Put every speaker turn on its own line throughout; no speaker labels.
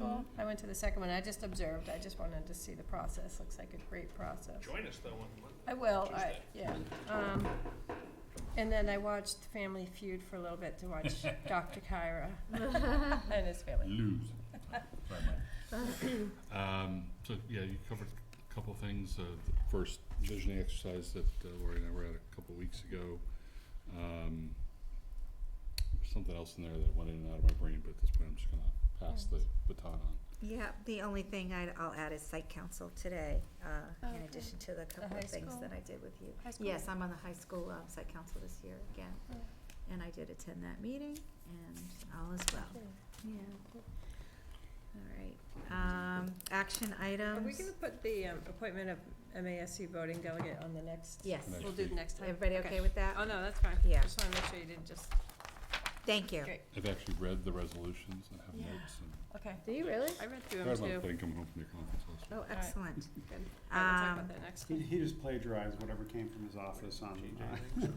Well,
Mm-hmm.
I went to the second one, I just observed, I just wanted to see the process, looks like a great process.
Join us though on Monday.
I will, I,
Tuesday.
yeah, um, and then I watched Family Feud for a little bit to watch Dr. Kyra and his family.
Lose. Sorry, Mike. Um, so, yeah, you covered a couple of things, uh, the first visioning exercise that uh, Lori and I were at a couple of weeks ago. Um, there's something else in there that went in and out of my brain, but at this point, I'm just gonna pass the baton on.
Yeah, the only thing I'd, I'll add is site council today, uh,
Oh,
in
Okay.
addition to the couple
high
of things
school?
that I did with you.
High school? Oh.
Yes, I'm on the high school, um, site council this year again, and I did attend that meeting, and all is well, yeah. All right, um, action
Are
items.
we gonna put the, um, appointment of MASC voting delegate on the next?
Yes,
Next
We'll do
week.
the next time.
everybody okay with that?
Oh, no, that's fine.
Yeah.
Just wanna make sure you didn't just,
Thank you.
great,
I've actually read the resolutions and have
Yeah.
notes and
okay.
Do you really?
I read through
I
them
read my
too.
thing coming home from your conference last week.
Oh, excellent.
Good. All right, we'll talk
Um,
about that next
He,
week.
he just plagiarized whatever came from his office on,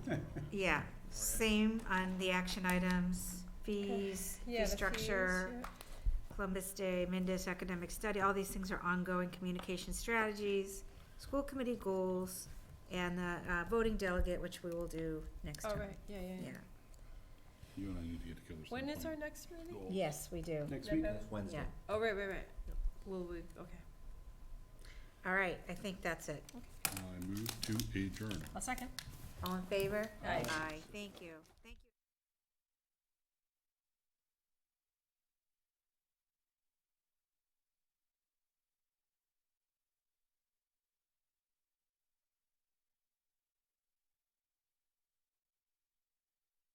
uh,
Yeah, same on the action items, fees,
Yeah,
fee
the fees,
structure,
yeah.
Columbus Day, Mendus Academic Study, all these things are ongoing communication strategies, school committee goals, and the uh, voting delegate, which we will do next
All
time.
Oh, right, yeah, yeah, yeah.
Yeah.
You and I need to get together
When is our
sometime.
next meeting?
Yes, we do.
next week.
Wednesday.
Yeah.
Oh, right, right, right. Will we, okay.
All right, I think that's it.
I move to adjourn.
A second.
All in favor?
Aye.
Aye, thank you.